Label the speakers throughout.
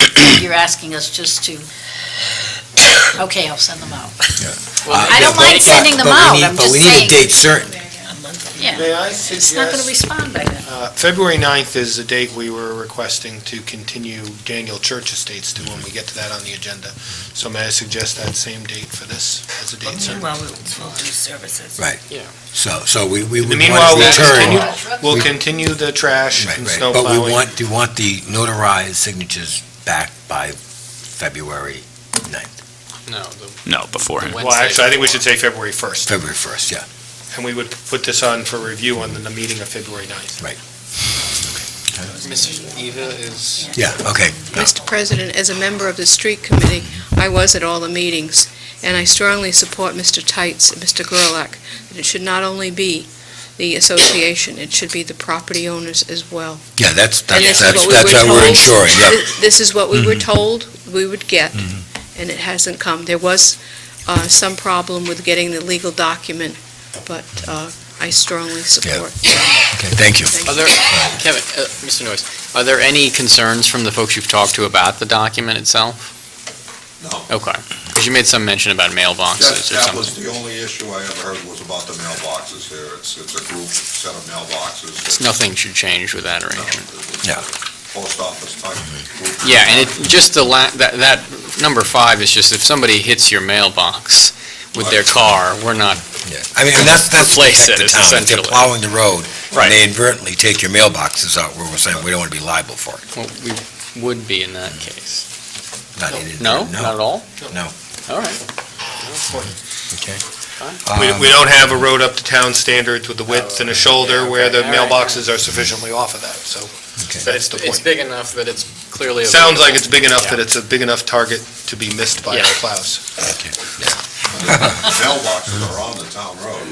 Speaker 1: you're asking us just to, okay, I'll send them out.
Speaker 2: I
Speaker 1: don't mind sending them out, I'm
Speaker 2: But we
Speaker 1: just
Speaker 2: need a
Speaker 1: saying-
Speaker 2: date certain.
Speaker 1: Yeah,
Speaker 3: May I
Speaker 1: it's not going to
Speaker 3: suggest,
Speaker 1: respond by then.
Speaker 3: uh, February 9th is the date we were requesting to continue Daniel Church Estates to when we get to that on the agenda. So may I suggest that same date for this as a date, sir?
Speaker 4: uh,
Speaker 5: Meanwhile, we'll we'll do services.
Speaker 2: Right. So, so we, we would
Speaker 3: Meanwhile,
Speaker 2: want to
Speaker 3: we'll continue,
Speaker 2: return.
Speaker 3: we'll continue the trash
Speaker 2: Right,
Speaker 3: and
Speaker 2: right.
Speaker 3: snow
Speaker 2: But we
Speaker 3: plowing.
Speaker 2: want, we want the notarized signatures back by February 9th,
Speaker 4: No, the
Speaker 6: No, beforehand.
Speaker 3: Well, actually, I think we should say February 1st,
Speaker 2: February 1st, yeah.
Speaker 3: and we would put this on for review on the- the meeting of February 9th.
Speaker 4: Mrs. Eva is,
Speaker 2: Yeah, okay.
Speaker 7: Mr. President, as a member of the street committee, I was at all the meetings, and I strongly support Mr. Tights and Mr. Gerlach, that it should not only be the association, it should be the property owners as well.
Speaker 2: Yeah, that's,
Speaker 7: And
Speaker 2: that's,
Speaker 7: this is
Speaker 2: that's
Speaker 7: what we were
Speaker 2: that's what we're
Speaker 7: told.
Speaker 2: ensuring, yeah. Mm-hmm.
Speaker 7: Thi- This is what we were told we would get, and it hasn't come. There was uh, some problem with getting the legal document, but uh, I strongly support.
Speaker 2: Okay, thank you.
Speaker 7: Thank
Speaker 4: are there, Kevin, uh, Mr. Noyes, are there any concerns from the folks you've talked to about the document itself?
Speaker 8: No.
Speaker 4: Okay, because you made some mention about
Speaker 8: That,
Speaker 4: mailboxes Oh, or
Speaker 8: that
Speaker 4: something.
Speaker 8: was the only issue I ever heard was about the mailboxes there. It's, it's a group set of mailboxes. um,
Speaker 4: Nothing should change with that
Speaker 8: No,
Speaker 4: arrangement.
Speaker 8: it's a
Speaker 2: Yeah.
Speaker 8: Post office type group.
Speaker 4: Yeah, and it, just the la, that, that, number five is just if somebody hits your mailbox with their car, we're not,
Speaker 2: Yeah. I mean, and that's, that's the
Speaker 4: Replace
Speaker 2: thing,
Speaker 4: it
Speaker 2: the town, if they're
Speaker 4: essentially.
Speaker 2: plowing the road,
Speaker 4: Right.
Speaker 2: and they inadvertently take your mailboxes out, we're saying we don't want to be liable for it.
Speaker 4: well, we would be in that case.
Speaker 2: Not inadvertent-
Speaker 4: No, not at all?
Speaker 2: No.
Speaker 4: All right,
Speaker 2: Okay.
Speaker 3: We, we
Speaker 2: Um,
Speaker 3: don't have a road up to town standards with the width and a shoulder where the
Speaker 4: Yeah, Oh, okay, all right.
Speaker 3: mailboxes are sufficiently off of that, so
Speaker 2: okay.
Speaker 3: that's the
Speaker 4: it's
Speaker 3: point.
Speaker 4: big enough that it's clearly.
Speaker 3: Sounds like it's big enough
Speaker 4: Yeah.
Speaker 3: that it's a big enough target to be missed by
Speaker 4: Yeah.
Speaker 3: our plows.
Speaker 8: Mailboxes are on the town road.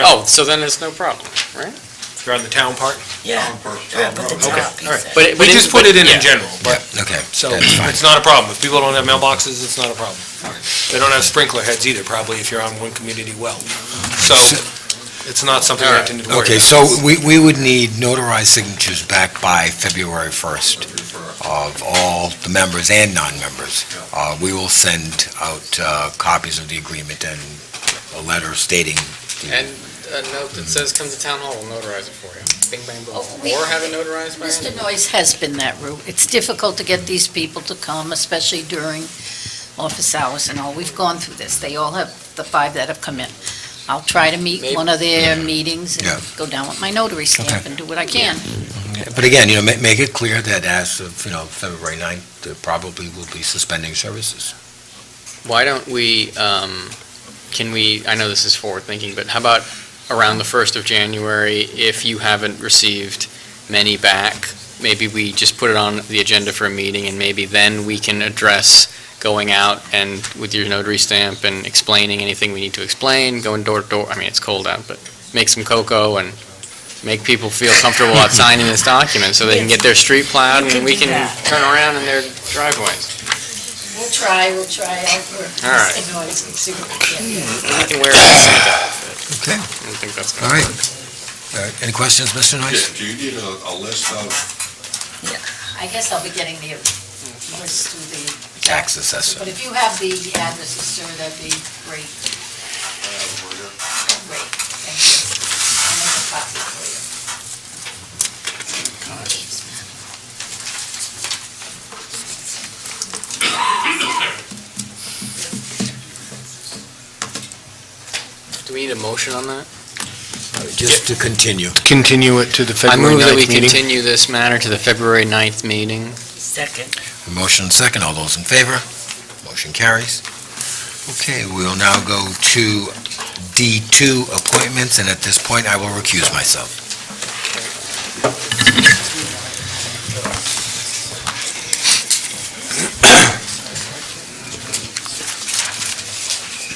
Speaker 4: Oh, so then it's no problem, right?
Speaker 3: You're on the town part?
Speaker 5: Yeah,
Speaker 8: Town per-
Speaker 5: yeah,
Speaker 8: town
Speaker 5: but the
Speaker 8: road.
Speaker 5: top
Speaker 3: Um, all right.
Speaker 5: piece.
Speaker 4: But it-
Speaker 3: We
Speaker 4: but
Speaker 3: just put
Speaker 4: but-
Speaker 3: it in
Speaker 4: yeah.
Speaker 3: in general,
Speaker 2: Yeah,
Speaker 3: but
Speaker 2: okay.
Speaker 3: So
Speaker 2: That's fine.
Speaker 3: it's not a problem. If people don't have mailboxes, it's not a problem. They don't have sprinkler heads either, probably, if you're on one community well. So it's not something we have to worry about.
Speaker 2: Okay, so we, we would need notarized signatures back by February 1st of all the members and non-members. Uh, we will send out, uh, copies of the agreement and a letter stating,
Speaker 4: And a note that says, come to town hall, we'll notarize it for you. Bing, bang, boom.
Speaker 1: Oh, we-
Speaker 4: Or have it notarized by
Speaker 1: Mr.
Speaker 4: hand.
Speaker 1: Noyes has been that route. It's difficult to get these people to come, especially during office hours and all. We've gone through this. They all have, the five that have come in. I'll try to meet
Speaker 4: Maybe-
Speaker 1: one of their meetings
Speaker 2: Yeah.
Speaker 1: and go down with my notary stamp
Speaker 2: Okay.
Speaker 1: and do what I can.
Speaker 2: but again, you know, ma- make it clear that as of, you know, February 9th, there probably will be suspending services.
Speaker 4: Why don't we, um, can we, I know this is forward-thinking, but how about around the 1st of January, if you haven't received many back, maybe we just put it on the agenda for a meeting, and maybe then we can address going out and with your notary stamp and explaining anything we need to explain, going door to door, I mean, it's cold out, but make some cocoa and make people feel comfortable about signing this document, so they can get their street plowed, and we can turn around in their driveways.
Speaker 1: We'll try, we'll try. I'll work with
Speaker 4: All right.
Speaker 1: Mr. Noyes and see what we can do.
Speaker 4: We can wear a Santa outfit.
Speaker 2: Okay.
Speaker 4: I don't think that's gonna.
Speaker 2: All right. All right, Any questions, Mr. Nice?
Speaker 8: Do you need a, a list of,
Speaker 1: I guess I'll be getting the list through the,
Speaker 2: Tax assessor.
Speaker 1: but if you have the addresses, sir, that'd be great, great. Thank you. I'll make a copy for you.
Speaker 4: Do we need a motion on that?
Speaker 2: Just to continue.
Speaker 3: Continue it to the
Speaker 4: I
Speaker 3: February
Speaker 4: move that we
Speaker 3: 9th meeting.
Speaker 4: continue this matter to the February 9th meeting.
Speaker 5: Second.
Speaker 2: Motion second, all those in favor? Motion carries. Okay, we'll now go to D2 appointments, and at this point, I will recuse myself.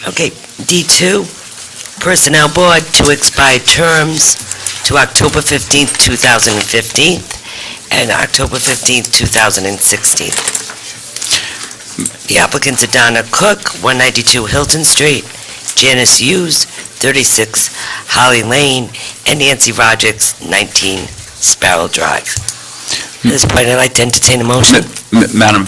Speaker 5: Okay, D2, Personnel Board to expire terms to October 15th, 2015, and October 15th, 2016. The applicants are Donna Cook, 192 Hilton Street, Janice Hughes, 36 Holly Lane, and Nancy Rogers, 19 Sparrow Drive. At this point, I'd like to entertain a motion.
Speaker 6: Madam